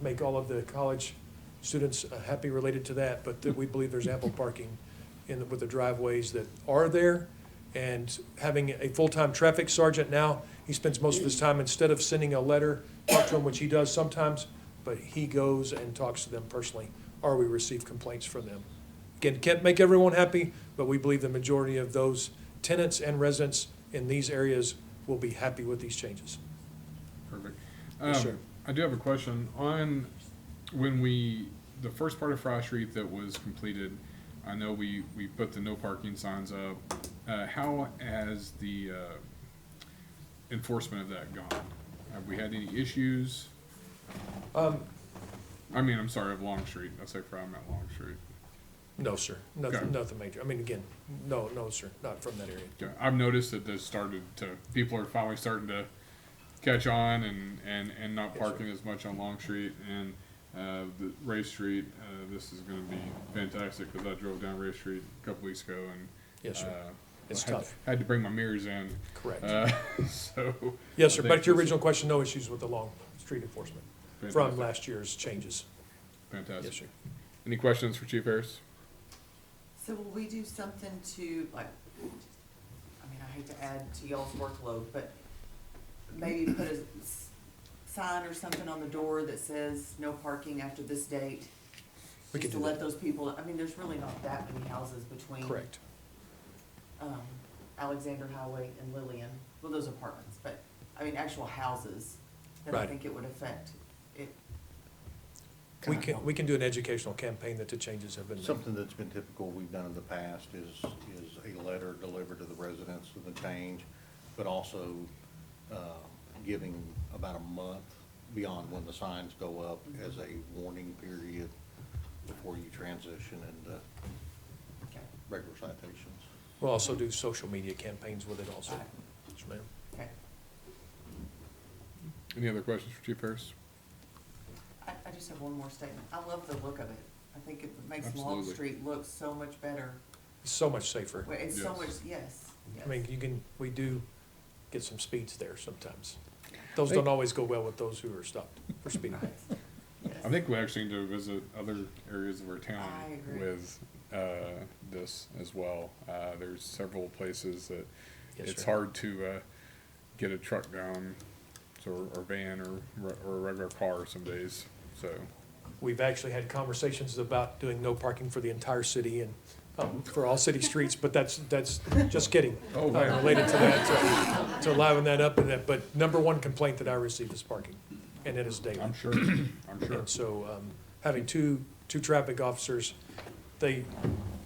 make all of the college students uh, happy related to that, but that we believe there's ample parking in, the- with the driveways that are there. And having a full-time traffic sergeant now, he spends most of his time, instead of sending a letter, talk to them, which he does sometimes, but he goes and talks to them personally, or we receive complaints from them. Again, can't make everyone happy, but we believe the majority of those tenants and residents in these areas will be happy with these changes. Perfect. Yes, Um, sir. I do have a question on when we, the first part of Fry Street that was completed, I know we, we put the no parking signs up. Uh, how has the, uh, enforcement of that gone? Have we had any issues? Um, I mean, I'm sorry, of Long Street. I say Fry, I meant Long Street. No, sir, Okay. nothing, nothing major. I mean, again, no, no, sir, not from that area. Yeah, I've noticed that this started to, people are finally starting to catch on and, and, and not Yes, sir. parking as much on Long Street and, uh, the Ray Street, uh, this is gonna be fantastic, cause I drove down Ray Street a couple weeks ago and. Yes, sir, uh, It's had- tough. Had to bring my mirrors in, correct. uh, so. Yes, sir, back to I think your this is original question, no issues with the long street enforcement from fantastic, last year's changes. Yes, Fantastic. sir. Any questions for Chief Harris? So will we do something to, like, I mean, I hate to add to y'all's workload, but maybe put a s- sign or something on the door that says no parking after this date? We can Just to do let that, those people, I mean, there's really not that many houses between. correct. Um, Alexander Highway and Lillian, well, those apartments, but, I mean, actual houses that I Right. think it would affect. It, We can, we can do an educational campaign that the changes have been made. Something that's been typical we've done in the past is, is a letter delivered to the residents of the change, but also uh, giving about a month beyond when the signs go up as a warning period before you transition into okay, regular citations. We'll also do social media campaigns with it also. Right. Yes, ma'am. okay. Any other questions for Chief Harris? I, I just have one more statement. I love the look of it. I think it makes Long Absolutely. Street look so much better. It's so much safer. Well, It's so Yes. much, yes, yes. I mean, you can, we do get some speeds there sometimes. Those Hey. don't always go well with those who are stopped for speeding. Right. Yes. I think we actually need to visit other areas of our I town agree. with uh, this as well. Uh, there's several places that Yes, it's sir. hard to uh, get a truck down, so, or van, or re- or a regular car some days. So We've actually had conversations about doing no parking for the entire city and um, for all city streets, but that's, that's, just kidding. Oh, Uh, wow. Related to that, to to liven that up and that, but number one complaint that I receive is parking, and it is daily. I'm sure, I'm sure. And so, um, having two, two traffic officers, they,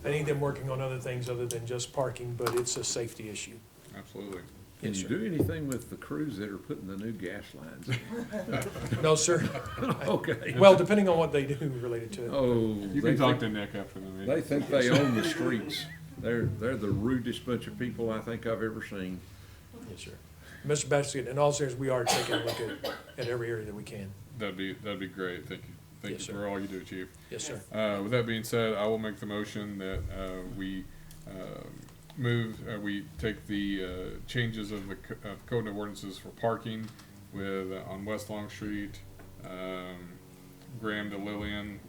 I need them working on other things other than just parking, but it's a safety issue. Absolutely. Can Yes, you sir. do anything with the crews that are putting the new gas lines? in? No, sir. Okay. Well, depending on what they do related to it. Oh. You they can talk to think- Nick after the meeting. They think they own the streets. They're, they're the rudest bunch of people I think I've ever seen. Yes, sir. Mr. Bastigan, in all seriousness, we are taking a look at, at every area that we can. That'd be, that'd be great. Thank you. Thank Yes, you sir. for all you do, Chief. Yes, sir. Uh, with that being said, I will make the motion that, uh, we, uh, move, uh, we take the, uh, changes of the, co- of code of ordinances for parking with, uh, on West Long Street, um, Graham to Lillian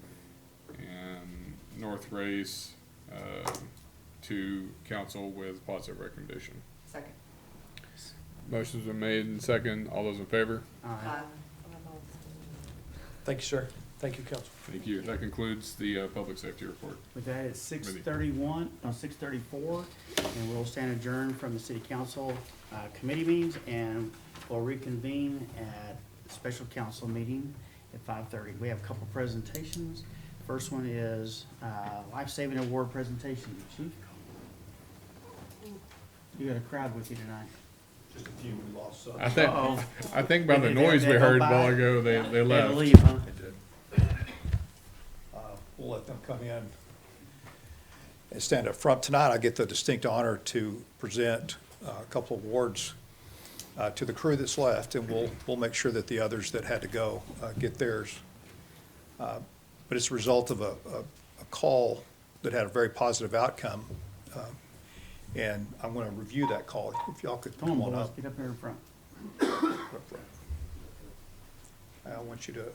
and North Race, uh, to council with positive recommendation. Second. Motion's been made and second. All those in favor? Uh, Aye. Thank you, sir. Thank you, council. Thank you. That concludes the, uh, public safety report. With that, it's six thirty-one, no, six thirty-four, and we'll stand adjourned from the city council, uh, committee meetings, and we'll reconvene at special council meeting at five thirty. We have a couple presentations. First one is, uh, life-saving award presentation. Chief? You got a crowd with you tonight. Just a few, we lost some. I think, Uh-oh. I think by the Did they- noise they we go heard a by? while ago, they, they They had left. to leave, huh? Uh, We'll let them come in and stand up front. Tonight, I get the distinct honor to present uh, a couple of awards uh, to the crew that's left, and we'll, we'll make sure that the others that had to go uh, get theirs. Uh, But it's a result of a, a- a call that had a very positive outcome, um, and I'm going to review that call. If y'all could Come come on, on boys, up. get up here in front. I want you to